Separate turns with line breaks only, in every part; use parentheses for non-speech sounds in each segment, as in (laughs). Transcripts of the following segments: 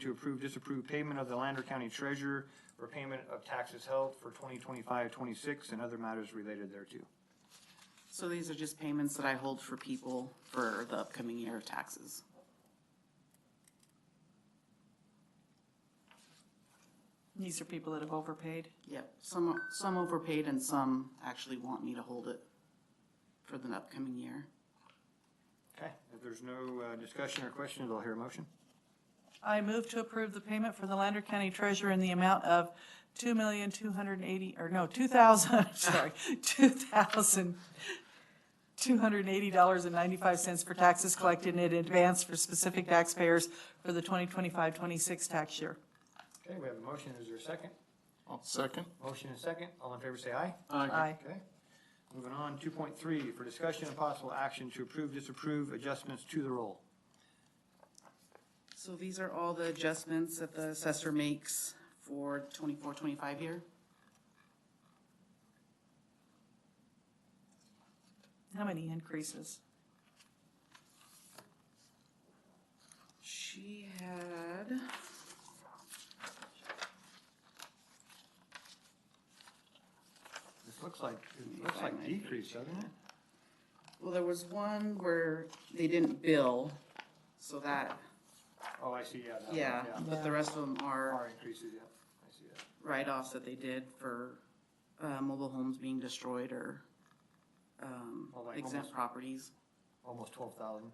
to approve, disapprove payment of the Lander County Treasurer for payment of taxes held for 2025, 26, and other matters related thereto.
So these are just payments that I hold for people for the upcoming year of taxes.
These are people that have overpaid.
Yep, some, some overpaid and some actually want me to hold it for the upcoming year.
Okay, if there's no uh, discussion or questions, I'll hear a motion.
I move to approve the payment for the Lander County Treasurer in the amount of two million, two hundred and eighty, or no, two thousand, (laughs) sorry, two thousand, two hundred and eighty dollars and ninety-five cents for taxes collected in advance for specific taxpayers for the 2025-26 tax year.
Okay, we have a motion. Is there a second?
I'll second.
Motion and second. All in favor, say aye.
Aye.
Okay. Moving on, two point three, for discussion and possible action to approve, disapprove adjustments to the roll.
So these are all the adjustments that the assessor makes for 24-25 year.
How many increases?
She had.
This looks like, it looks like decrease, doesn't it?
Well, there was one where they didn't bill, so that,
Oh, I see, yeah. that one,
yeah, but the rest of them are
Are increases, yeah. I see that.
write-offs that they did for, uh, mobile homes being destroyed or, um,
Well, like
exempt
almost-
properties.
Almost twelve thousand.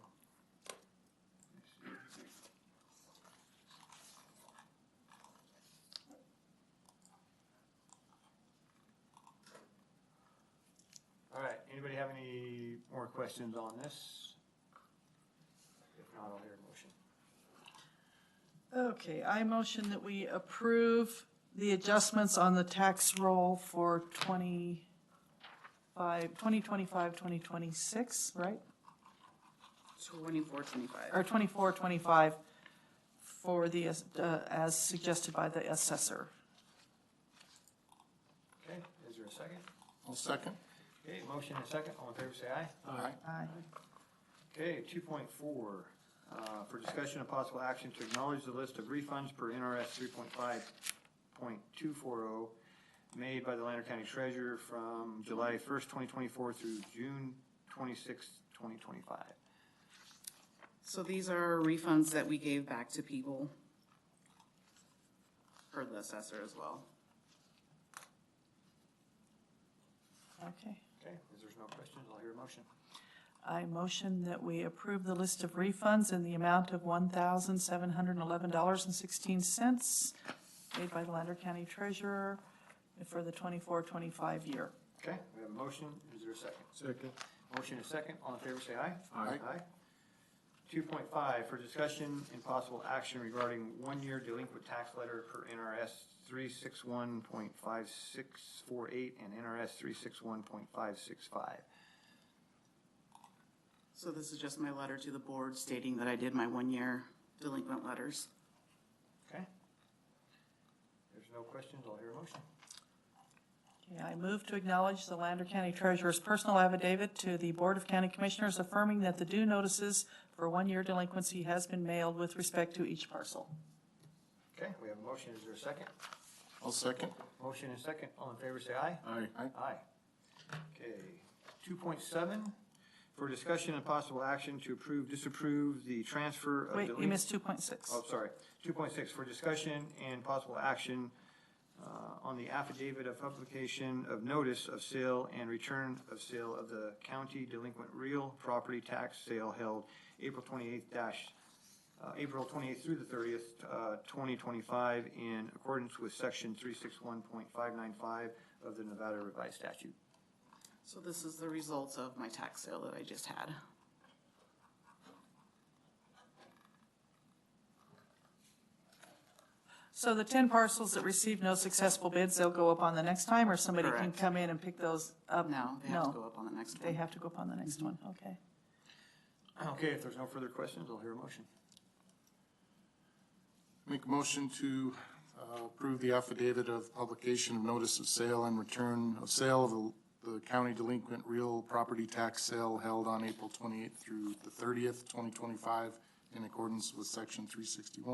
All right, anybody have any more questions on this? If not, I'll hear a motion.
Okay, I motion that we approve the adjustments on the tax roll for 25, 2025, 2026, right?
Twenty-four, twenty-five.
Or 24, 25 for the, uh, as suggested by the assessor.
Okay, is there a second?
I'll second.
Okay, motion and second, all in favor say aye.
Aye.
Aye.
Okay, two point four, uh, for discussion of possible action to acknowledge the list of refunds per NRS three point five point two four oh made by the Lander County Treasurer from July first, twenty twenty-four through June twenty-sixth, twenty twenty-five.
So these are refunds that we gave back to people for the assessor as well.
Okay.
Okay, if there's no questions, I'll hear a motion.
I motion that we approve the list of refunds in the amount of $1,711.16 made by the Lander County Treasurer for the 24, 25 year.
Okay, we have a motion, is there a second?
Second.
Motion is second, all in favor say aye.
Aye.
Two point five, for discussion and possible action regarding one-year delinquent tax letter per NRS three six one point five six four eight and NRS three six one point five six five.
So this is just my letter to the board stating that I did my one-year delinquent letters.
Okay? There's no questions, I'll hear a motion.
Okay, I move to acknowledge the Lander County Treasurer's personal affidavit to the Board of County Commissioners affirming that the due notices for one-year delinquency has been mailed with respect to each parcel.
Okay, we have a motion, is there a second?
I'll second.
Motion is second, all in favor say aye.
Aye.
Aye. Okay, two point seven, for discussion and possible action to approve, disapprove the transfer of
Wait,
delinquent.
you missed 2.6.
Uh, Oh, sorry, two point six, for discussion and possible action uh, on the affidavit of publication of notice of sale and return of sale of the county delinquent real property tax sale held April twenty-eighth dash, uh, April twenty-eighth through the thirtieth, uh, twenty twenty-five, in accordance with section three six one point five nine five of the Nevada Revised Statute.
So this is the results of my tax sale that I just had.
So the 10 parcels that received no successful bids, they'll go up on the next time, or somebody can
Correct.
come in and pick those up?
No, they have to go up on the next
They
one.
have to go up on the next one, okay.
Okay, if there's no further questions, I'll hear a motion.
Make a motion to uh, approve the affidavit of publication of notice of sale and return of sale of the- the county delinquent real property tax sale held on April 28th through the 30th, 2025, in accordance with Section 361